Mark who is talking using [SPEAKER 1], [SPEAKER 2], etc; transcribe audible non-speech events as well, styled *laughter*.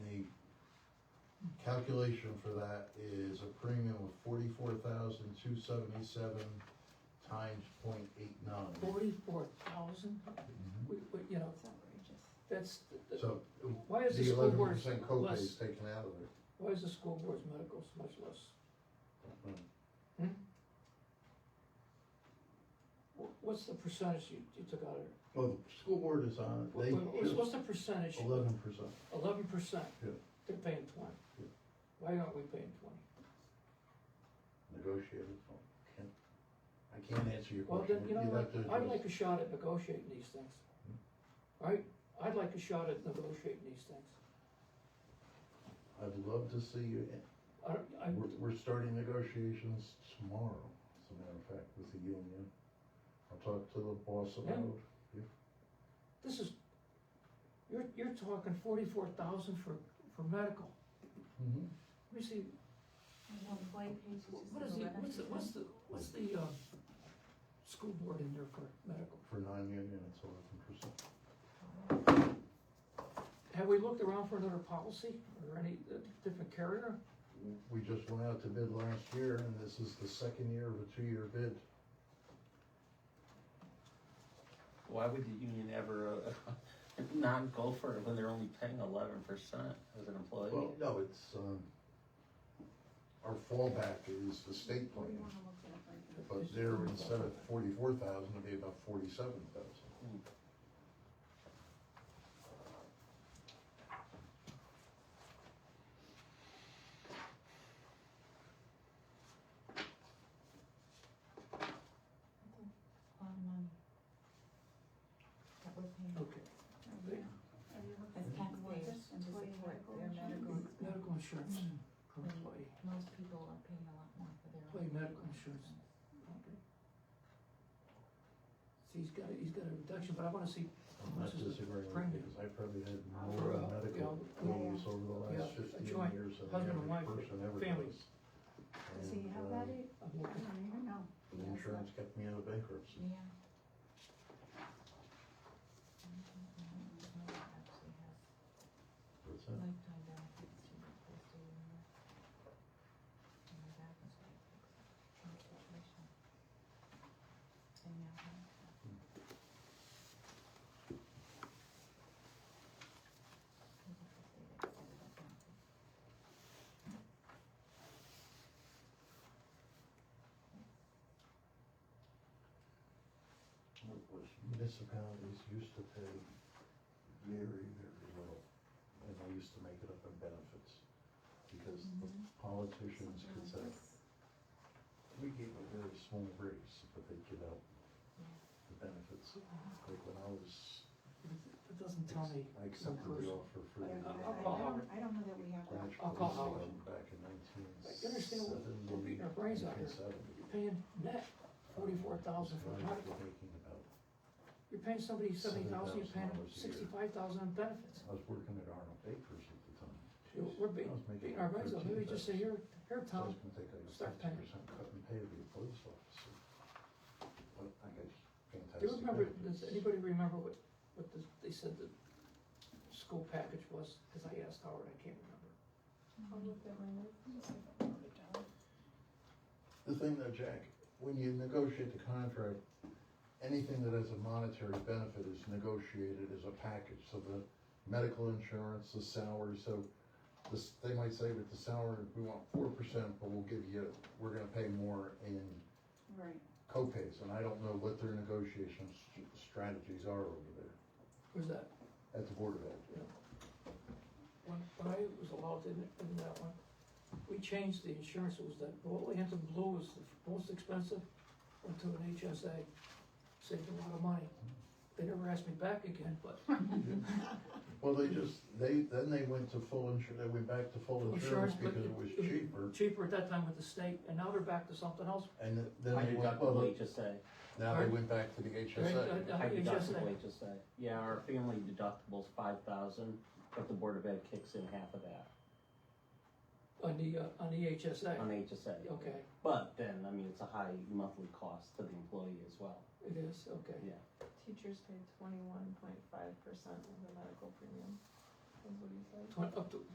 [SPEAKER 1] Calculation for that is a premium of forty-four thousand, two seventy-seven times point eight nine. Mm-hmm.
[SPEAKER 2] Forty-four thousand, we, we, you know,
[SPEAKER 3] It's outrageous.
[SPEAKER 2] that's, the- the-
[SPEAKER 1] So
[SPEAKER 2] why is the
[SPEAKER 1] the
[SPEAKER 2] school
[SPEAKER 1] eleven
[SPEAKER 2] board
[SPEAKER 1] percent copay
[SPEAKER 2] less,
[SPEAKER 1] is taken out of it.
[SPEAKER 2] why is the school board's medical so much less?
[SPEAKER 1] Hmm.
[SPEAKER 2] Hmm? Wh- What's the percentage you, you took out of it?
[SPEAKER 1] Well, Oh, the school board is on,
[SPEAKER 2] Wh-
[SPEAKER 1] it. they
[SPEAKER 2] wh- What's, what's the percentage?
[SPEAKER 1] eleven percent.
[SPEAKER 2] Eleven percent?
[SPEAKER 1] Yeah.
[SPEAKER 2] They're paying twenty.
[SPEAKER 1] Yeah.
[SPEAKER 2] Why aren't we paying twenty?
[SPEAKER 1] negotiated. so can't- I can't answer your
[SPEAKER 2] Well,
[SPEAKER 1] question.
[SPEAKER 2] then, you know
[SPEAKER 1] You'd
[SPEAKER 2] what,
[SPEAKER 1] have to Hmm.
[SPEAKER 2] I'd
[SPEAKER 1] address-
[SPEAKER 2] like a shot at negotiating these things. Right, I'd like a shot at negotiating these things.
[SPEAKER 1] I'd love to see you,
[SPEAKER 2] I, don't- I,
[SPEAKER 1] we're, we're starting negotiations tomorrow, as a matter of fact, with the union. I'll talk to the boss
[SPEAKER 2] Yeah.
[SPEAKER 1] about it.
[SPEAKER 2] this is, you're, you're talking forty-four thousand for, for medical.
[SPEAKER 1] Mhm.
[SPEAKER 2] Let me see,
[SPEAKER 3] There's no employee page, it's just
[SPEAKER 2] what is the,
[SPEAKER 3] eleven
[SPEAKER 2] what's the, what's
[SPEAKER 3] percent.
[SPEAKER 2] the, what's the, uh, school board in there for medical?
[SPEAKER 1] For non-union, it's eleven percent.
[SPEAKER 2] Have we looked around for another policy or any uh, different carrier?
[SPEAKER 1] We just went out to bid last year, and this is the second year of a two-year bid.
[SPEAKER 4] Why would the union ever uh, *laughs* not go for it when they're only paying eleven percent as an employee?
[SPEAKER 1] Well, no, it's, um, our fallback is the state
[SPEAKER 3] We
[SPEAKER 1] plan,
[SPEAKER 3] wanna look at it like
[SPEAKER 1] but
[SPEAKER 3] that.
[SPEAKER 1] there, instead of forty-four thousand, it'd be about forty-seven thousand.
[SPEAKER 3] A lot of money. uh, um, That we're paying.
[SPEAKER 2] Okay. They-
[SPEAKER 3] As taxpayers and as support, their medical expense.
[SPEAKER 2] Medical insurance per employee.
[SPEAKER 3] Most people are paying a lot more for their. own
[SPEAKER 2] Play medical insurance.
[SPEAKER 3] expense.
[SPEAKER 2] See, he's got, a- he's got a reduction, but I wanna see,
[SPEAKER 1] I'm not disagreeing with you, because I probably had
[SPEAKER 2] For,
[SPEAKER 1] more
[SPEAKER 2] uh,
[SPEAKER 1] medical
[SPEAKER 2] yeah.
[SPEAKER 1] bills over the
[SPEAKER 2] Yeah,
[SPEAKER 1] last
[SPEAKER 2] a
[SPEAKER 1] fifteen
[SPEAKER 2] joint
[SPEAKER 1] years than
[SPEAKER 2] husband and
[SPEAKER 1] the average
[SPEAKER 2] wife,
[SPEAKER 1] person ever
[SPEAKER 2] family.
[SPEAKER 1] does.
[SPEAKER 3] So you
[SPEAKER 1] And,
[SPEAKER 3] have
[SPEAKER 1] uh,
[SPEAKER 3] that, eh?
[SPEAKER 2] I'm looking.
[SPEAKER 3] I don't know.
[SPEAKER 1] The insurance kept me out of bankruptcy.
[SPEAKER 3] Yeah.
[SPEAKER 1] That's it.
[SPEAKER 3] Lifetime benefits to the first year. And my back was like, in the situation. And now, I'm- People should say that, that it doesn't happen.
[SPEAKER 1] Municipalities used to pay very, very little, and they used to make it up in benefits. Because the politicians could say, we gave a very small raise, but they give out the benefits. Like when I was,
[SPEAKER 2] It doesn't tell me.
[SPEAKER 1] I accepted the offer for the.
[SPEAKER 2] I- I-
[SPEAKER 1] uh,
[SPEAKER 2] I'll call Howard.
[SPEAKER 3] I don't know that we have that.
[SPEAKER 1] branch
[SPEAKER 2] I'll call
[SPEAKER 1] police
[SPEAKER 2] Howard.
[SPEAKER 1] back in
[SPEAKER 2] I understand we're- we're beating our brains out here.
[SPEAKER 1] 1970.
[SPEAKER 2] You're paying net forty-four thousand for
[SPEAKER 1] Now
[SPEAKER 2] medical.
[SPEAKER 1] you're making about-
[SPEAKER 2] You're paying somebody seventy thousand, you're paying
[SPEAKER 1] $7,000
[SPEAKER 2] them
[SPEAKER 1] a year.
[SPEAKER 2] sixty-five thousand in benefits.
[SPEAKER 1] I was working at Arnold Bakers at the time.
[SPEAKER 2] You know, We're
[SPEAKER 1] I was
[SPEAKER 2] beating,
[SPEAKER 1] making
[SPEAKER 2] beating our brains out, maybe just say,
[SPEAKER 1] 13,000.
[SPEAKER 2] here,
[SPEAKER 1] So I
[SPEAKER 2] here,
[SPEAKER 1] was
[SPEAKER 2] Tom,
[SPEAKER 1] gonna take a
[SPEAKER 2] start
[SPEAKER 1] fifty
[SPEAKER 2] paying.
[SPEAKER 1] percent cut and pay to be a police officer. But I got
[SPEAKER 2] do you
[SPEAKER 1] fantastic
[SPEAKER 2] remember, does
[SPEAKER 1] benefits.
[SPEAKER 2] anybody remember what, what the- they said the school package was? Cause I asked Howard, I can't remember.
[SPEAKER 1] The thing though, Jack, when you negotiate the contract, anything that has a monetary benefit is negotiated as a package, so the medical insurance, the salary, so this, they might say with the salary, we want four percent, but we'll give you, we're gonna pay more in
[SPEAKER 3] Right.
[SPEAKER 1] copays, and I don't know what their negotiation s- strategies are over there
[SPEAKER 2] Where's that?
[SPEAKER 1] at the Board of Health.
[SPEAKER 2] When, when I was allowed in, in that one, we changed the insurance, it was that, well, Anthem Blue was the most expensive, went to an HSA, saved a lot of money. They never asked me back again, but
[SPEAKER 1] Well, they just, they, then they went to full insur, they went back to full insurance
[SPEAKER 2] insurance, but.
[SPEAKER 1] because it was cheaper,
[SPEAKER 2] Cheaper at that time with the state, and now they're back to something else.
[SPEAKER 1] and th- then
[SPEAKER 4] High
[SPEAKER 1] they went, well,
[SPEAKER 4] deductible HSA,
[SPEAKER 1] now they went back to the HSA.
[SPEAKER 2] Uh,
[SPEAKER 4] high
[SPEAKER 2] HSA.
[SPEAKER 4] deductible HSA. Yeah, our family deductible's five thousand, but the Board of Ed kicks in half of that
[SPEAKER 2] On the, uh, on the HSA,
[SPEAKER 4] on HSA.
[SPEAKER 2] okay,
[SPEAKER 4] But then, I mean, it's a high monthly cost to the employee as well.
[SPEAKER 2] it is, okay.
[SPEAKER 4] Yeah.
[SPEAKER 5] Teachers pay twenty-one point five percent of the medical premium, is what he said.
[SPEAKER 2] Twen- up to